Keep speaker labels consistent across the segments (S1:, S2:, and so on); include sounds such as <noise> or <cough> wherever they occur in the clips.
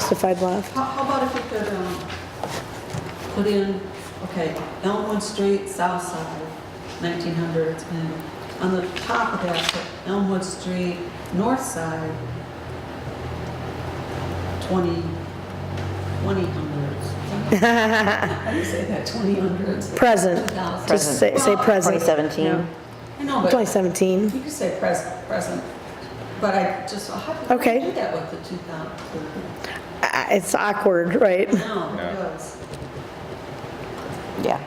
S1: justified left.
S2: How, how about if you could, um, put in, okay, Elmwood Street, south side, nineteen hundreds, and on the top of that, put Elmwood Street, north side, twenty, twenty hundreds. How do you say that, twenty hundreds?
S1: Present.
S2: Two thousand.
S1: Just say, say present.
S3: 2017?
S2: I know, but
S1: 2017.
S2: you could say present, present, but I just, how could
S1: Okay.
S2: you do that with the two thousand?
S1: I- Uh, It's awkward, right? <laughs>
S2: No, it was.
S3: Yeah.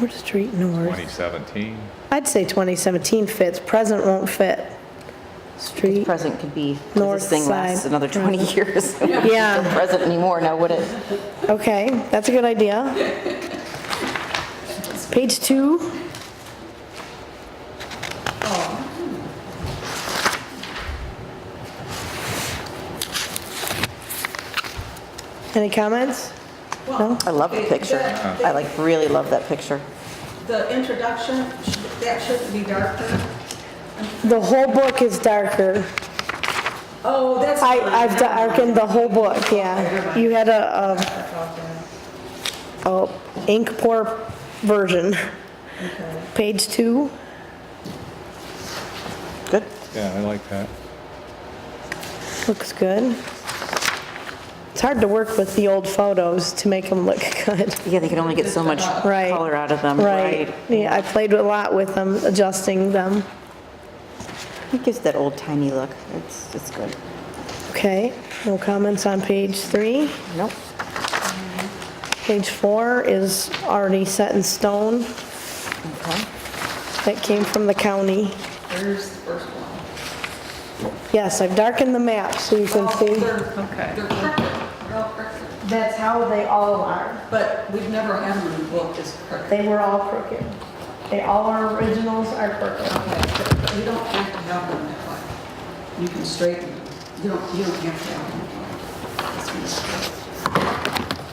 S1: We're Street North.
S4: 2017.
S1: I'd say 2017 fits, present won't fit. Street,
S3: Present could be, 'cause
S1: North
S3: this thing lasts
S1: side.
S3: another
S1: <laughs>
S3: 20 years. <laughs> It wouldn't be
S1: Yeah.
S3: Present anymore, now would it?
S1: okay, that's a good idea. Page two, any comments?
S2: Well,
S3: I love the
S2: it-
S3: picture.
S2: that-
S3: I like, really love that picture.
S2: The introduction, should- that shouldn't be darker.
S1: The whole book is darker.
S2: Oh, that's.
S1: I,
S2: fine.
S1: I've darkened the whole book, yeah. You had a,
S2: I thought
S1: a,
S2: that.
S1: a ink pour version.
S2: Okay.
S1: Page two,
S3: Good.
S4: Yeah, I like that.
S1: looks good. It's hard to work with the old photos to make them look <laughs> good.
S3: Yeah, they can only get so much
S1: Right.
S3: color out of them,
S1: Right,
S3: right?
S1: yeah, I played a lot with them, adjusting them.
S3: It gives that old timey look. It's, it's good.
S1: Okay, no comments on page three.
S3: Nope.
S1: Page four is already set in stone.
S3: Okay.
S1: That came from the county.
S2: There's the first one.
S1: Yes, I've darkened the map so you can
S2: Oh,
S1: see.
S2: they're- They're crooked, real crooked.
S1: That's how they all are.
S2: But we've never had one in book is crooked.
S1: They were all crooked. They, all our originals are crooked.
S2: Okay, but You don't have to have them that way. You can straighten them. You don't, you don't have to have them that way. That's what it's for.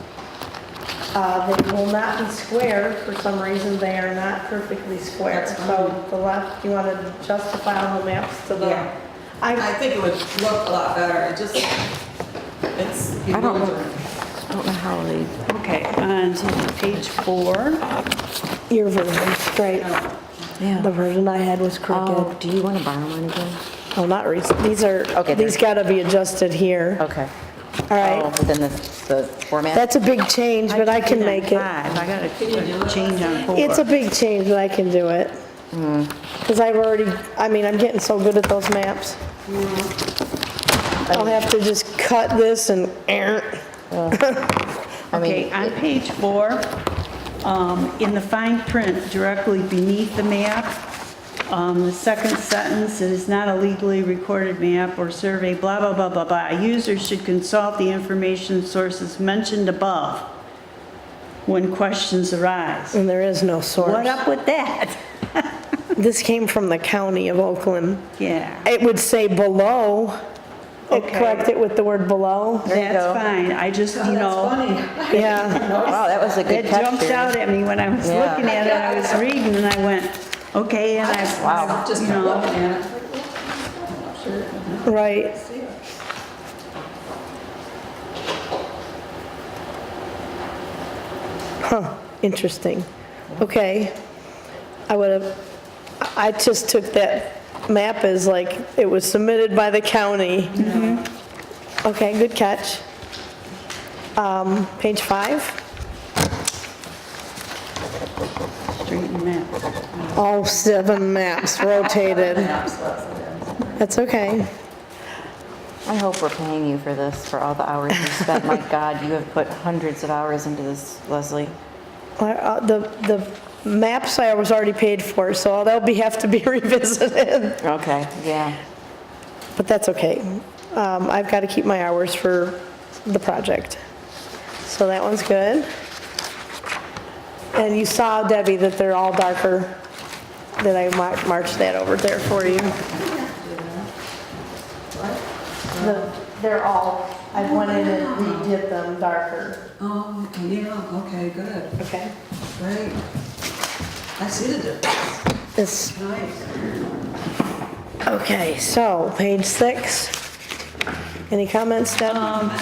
S1: Uh, they will not be square, for some reason, they are not perfectly square.
S2: That's
S1: So the left, you want to justify on the maps to the.
S2: Yeah. I
S1: I,
S2: think it would look a lot better. It just, it's
S3: I don't-
S2: bewildering.
S3: I don't know how they,
S5: Okay, on to page four.
S1: your version, great. The
S3: yeah.
S1: version I had was
S3: Oh,
S1: crooked.
S3: do you want to borrow one again?
S1: Oh, not recent, these are,
S3: Okay,
S1: these gotta be adjusted here.
S3: Okay.
S1: All
S3: Oh,
S1: right,
S3: within the, the format?
S1: that's a big change, but I can make it.
S5: Five, I got a change on four.
S1: It's a big change, but I can do it. Because I've already, I mean, I'm getting so good at those maps. I'll have to just cut this and,
S3: I mean,
S5: Okay, on page four, um, in the fine print directly beneath the map, um, the second sentence, it is not a legally recorded map or survey, blah, blah, blah, blah, blah. Users should consult the information sources mentioned above when questions arise.
S3: Mm.
S1: and there is no
S5: What
S1: source.
S5: up with that?
S1: This came from the county of Oakland.
S5: Yeah,
S1: It would say below, It-
S5: Okay.
S1: correct it with the word below.
S3: There you go. Oh,
S5: that's fine, I just, you know.
S2: <laughs>
S1: Yeah,
S3: wow, that was a good
S5: It
S3: picture.
S5: jumped out at me when I was
S3: Yeah.
S5: looking at it, I was reading, and I went, okay, and I,
S2: Wow. Just
S5: you
S2: looking
S5: know,
S2: at it. I'm not sure.
S1: right. Huh, interesting. Okay. I would have, I I just took that map as like, it was submitted by the county. Okay, good catch. Um, Page five?
S5: straighten that.
S1: All seven maps rotated. That's okay.
S3: I hope we're paying you for this, for all the hours you spent. My God, you have put hundreds of hours into this, Leslie.
S1: Well, uh, The, the maps I was already paid for, so they'll be, <laughs> have to be revisited,
S3: Okay. Yeah.
S1: but that's okay. Um, I've got to keep my hours for the project. So that one's good. And you saw, Debbie, that they're all darker, that I mar- marched that over there for you. The- They're all, I went in and redid them darker.
S2: Oh, yeah, okay, good,
S1: Okay.
S2: great. I see the difference,
S1: This
S2: é nice.
S1: Okay, so page six. Any comments, Deb?